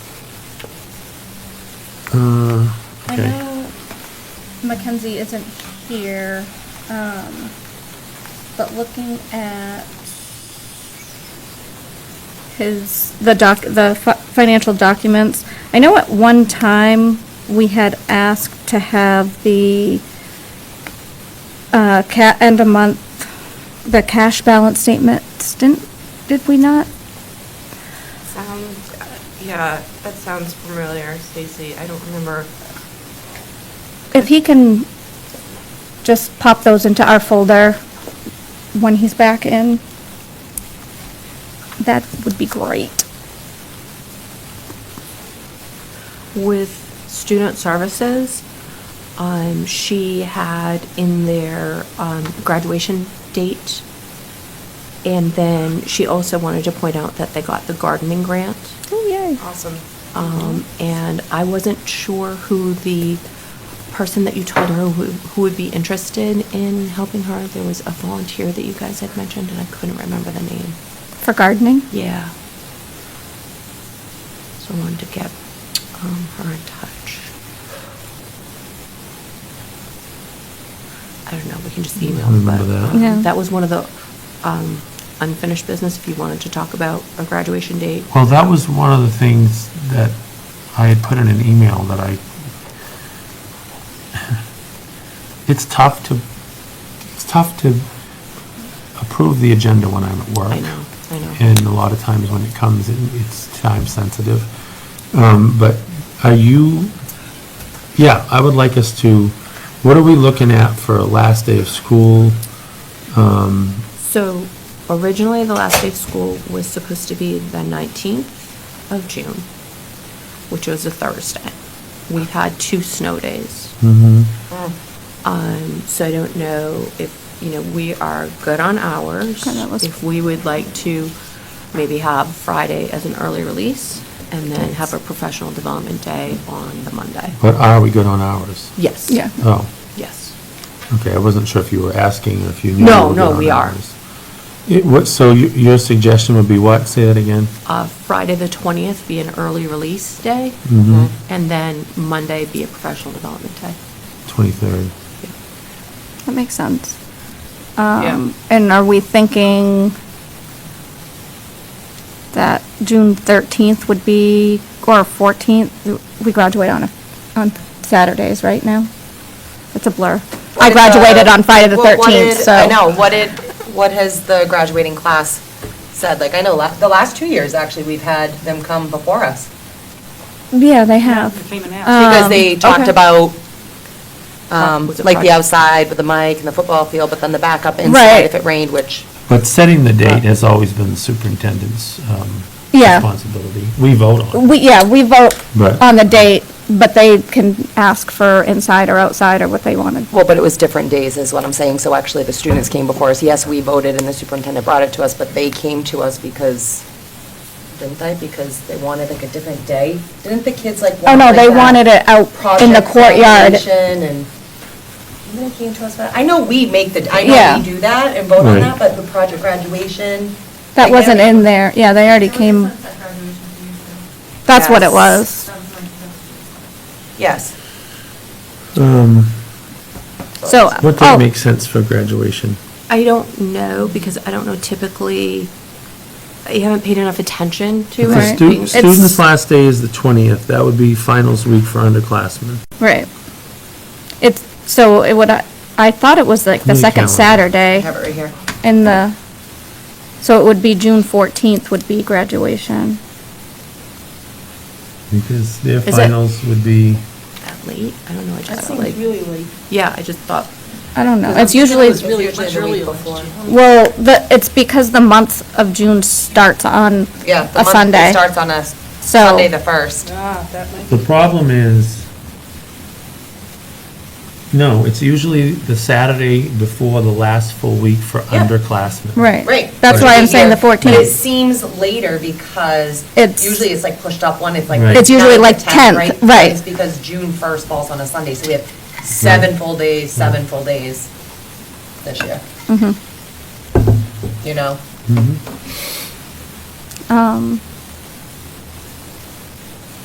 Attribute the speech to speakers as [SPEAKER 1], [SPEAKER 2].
[SPEAKER 1] I
[SPEAKER 2] Uh, Okay.
[SPEAKER 1] know Mackenzie isn't here, um, but looking at his, the doc, the fi- financial documents, I know at one time we had asked to have the, uh, ca, end of month, the cash balance statement, didn't, did we not?
[SPEAKER 3] Sounds, yeah, that sounds familiar, Stacy. I don't remember.
[SPEAKER 1] If he can just pop those into our folder when he's back in, that would be great.
[SPEAKER 4] With student services, um, she had in their, um, graduation date. And then she also wanted to point out that they got the gardening grant.
[SPEAKER 1] Oh, yay.
[SPEAKER 3] Awesome.
[SPEAKER 4] Um, and I wasn't sure who the person that you told her who, who would be interested in helping her. There was a volunteer that you guys had mentioned and I couldn't remember the name.
[SPEAKER 1] For gardening?
[SPEAKER 4] Yeah. So I wanted to get um, her in touch. I don't know, we can just email
[SPEAKER 2] I
[SPEAKER 4] them, but.
[SPEAKER 2] remember that.
[SPEAKER 4] um,
[SPEAKER 1] Yeah.
[SPEAKER 4] That was one of the um, unfinished business, if you wanted to talk about a graduation date.
[SPEAKER 2] Well, that was one of the things that I had put in an email that I, it's tough to, it's tough to approve the agenda when I'm at work.
[SPEAKER 4] I know, I know.
[SPEAKER 2] And a lot of times when it comes, it- it's time sensitive. Um, But are you, yeah, I would like us to, what are we looking at for a last day of school?
[SPEAKER 4] So originally, the last day of school was supposed to be the 19th of June, which was a Thursday. We've had two snow days.
[SPEAKER 2] Mm-hmm.
[SPEAKER 4] Um, so I don't know if, you know, we are good on hours.
[SPEAKER 1] Okay, that was-
[SPEAKER 4] If we would like to maybe have Friday as an early release and then have a professional development day on the Monday.
[SPEAKER 2] But are we good on hours?
[SPEAKER 4] Yes.
[SPEAKER 1] Yeah.
[SPEAKER 2] Oh,
[SPEAKER 4] Yes.
[SPEAKER 2] okay, I wasn't sure if you were asking or if you knew.
[SPEAKER 4] No,
[SPEAKER 2] were
[SPEAKER 4] no,
[SPEAKER 2] good on
[SPEAKER 4] we are.
[SPEAKER 2] hours. It, what, so you- your suggestion would be what? Say that again?
[SPEAKER 4] Uh, Friday, the 20th be an early release day
[SPEAKER 2] Mm-hmm,
[SPEAKER 4] and then Monday be a professional development day.
[SPEAKER 2] 23rd.
[SPEAKER 1] That makes sense.
[SPEAKER 3] Yeah.
[SPEAKER 1] Um, and are we thinking that June thirteenth would be, or fourteenth, we graduate on, a on Saturdays, right now? It's a blur. I
[SPEAKER 3] What did
[SPEAKER 1] graduated on Friday the
[SPEAKER 3] what- what
[SPEAKER 1] thirteenth,
[SPEAKER 3] did-
[SPEAKER 1] so.
[SPEAKER 3] I know, what did, what has the graduating class said? Like, I know, la- the last two years, actually, we've had them come before us.
[SPEAKER 1] Yeah, they have.
[SPEAKER 5] They came and
[SPEAKER 1] Uh,
[SPEAKER 5] asked.
[SPEAKER 3] Because
[SPEAKER 1] Um,
[SPEAKER 3] they talked
[SPEAKER 1] okay.
[SPEAKER 3] about, um,
[SPEAKER 4] Was it
[SPEAKER 3] like, the
[SPEAKER 4] Friday?
[SPEAKER 3] outside with the mic and the football field, but then the backup
[SPEAKER 1] Right.
[SPEAKER 3] inside if it rained, which,
[SPEAKER 2] But setting the date has always been the superintendent's um,
[SPEAKER 1] Uh, Yeah.
[SPEAKER 2] responsibility. We vote on it.
[SPEAKER 1] We, yeah, we vote
[SPEAKER 2] Right.
[SPEAKER 1] on the date, but they can ask for inside or outside or what they wanted.
[SPEAKER 3] well, but it was different days is what I'm saying. So actually, the students came before us. Yes, we voted and the superintendent brought it to us, but they came to us because, didn't they? Because they wanted like a different day? Didn't the kids like?
[SPEAKER 1] Oh,
[SPEAKER 3] want,
[SPEAKER 1] no,
[SPEAKER 3] like,
[SPEAKER 1] they
[SPEAKER 3] that
[SPEAKER 1] wanted it out in the
[SPEAKER 3] project
[SPEAKER 1] courtyard.
[SPEAKER 3] evaluation And, didn't they came to us, about- I know we make the, I
[SPEAKER 1] Yeah.
[SPEAKER 3] know we do that and vote on
[SPEAKER 2] Right.
[SPEAKER 3] that, but the project graduation.
[SPEAKER 1] That
[SPEAKER 3] like,
[SPEAKER 1] wasn't
[SPEAKER 3] every-
[SPEAKER 1] in there. Yeah, they already came. That's what it
[SPEAKER 3] Yes.
[SPEAKER 1] was.
[SPEAKER 3] Yes.
[SPEAKER 2] Um,
[SPEAKER 1] So.
[SPEAKER 2] What
[SPEAKER 1] oh,
[SPEAKER 2] day makes sense for graduation?
[SPEAKER 4] I don't know, because I don't know typically, I haven't paid enough attention to
[SPEAKER 1] Right.
[SPEAKER 2] The
[SPEAKER 4] it.
[SPEAKER 2] stu-
[SPEAKER 1] It's-
[SPEAKER 2] Student's last day is the 20th. That would be finals week for underclassmen.
[SPEAKER 1] Right. It's, so it would, I thought it was like the
[SPEAKER 2] New
[SPEAKER 1] second
[SPEAKER 2] calendar.
[SPEAKER 3] I
[SPEAKER 1] Saturday
[SPEAKER 3] have it right here.
[SPEAKER 1] in the, so it would be June fourteenth would be graduation.
[SPEAKER 2] Because their
[SPEAKER 1] Is it-
[SPEAKER 2] finals would be,
[SPEAKER 4] That late? I don't know, I just
[SPEAKER 5] That
[SPEAKER 4] felt
[SPEAKER 5] seemed
[SPEAKER 4] like,
[SPEAKER 5] really late.
[SPEAKER 4] yeah, I just thought,
[SPEAKER 1] I don't know.
[SPEAKER 3] Because
[SPEAKER 1] It's
[SPEAKER 3] I'm thinking it
[SPEAKER 1] usually,
[SPEAKER 3] was really
[SPEAKER 5] It's
[SPEAKER 3] usually the
[SPEAKER 5] early
[SPEAKER 3] week
[SPEAKER 5] last
[SPEAKER 3] before.
[SPEAKER 5] year.
[SPEAKER 1] well, the, it's because the month of June starts on
[SPEAKER 3] Yeah, the
[SPEAKER 1] a
[SPEAKER 3] month,
[SPEAKER 1] Sunday.
[SPEAKER 3] it starts on a Sunday, the
[SPEAKER 1] So,
[SPEAKER 3] 1st.
[SPEAKER 5] Ah, that might
[SPEAKER 2] the
[SPEAKER 5] be-
[SPEAKER 2] problem is, no, it's usually the Saturday before the last full week for
[SPEAKER 3] Yeah.
[SPEAKER 2] underclassmen.
[SPEAKER 1] right.
[SPEAKER 3] Right.
[SPEAKER 1] That's why I'm saying the
[SPEAKER 3] But It
[SPEAKER 1] fourteenth.
[SPEAKER 3] seems later because
[SPEAKER 1] It's-
[SPEAKER 3] usually it's like pushed up one, it's like.
[SPEAKER 2] Right.
[SPEAKER 1] It's usually
[SPEAKER 3] ninth or
[SPEAKER 1] like 10th, right.
[SPEAKER 3] It's because June 1st falls on a Sunday, so we have seven full days, seven full days this year,
[SPEAKER 1] Mm-hmm.
[SPEAKER 3] you know?
[SPEAKER 2] Mhm.
[SPEAKER 1] Um,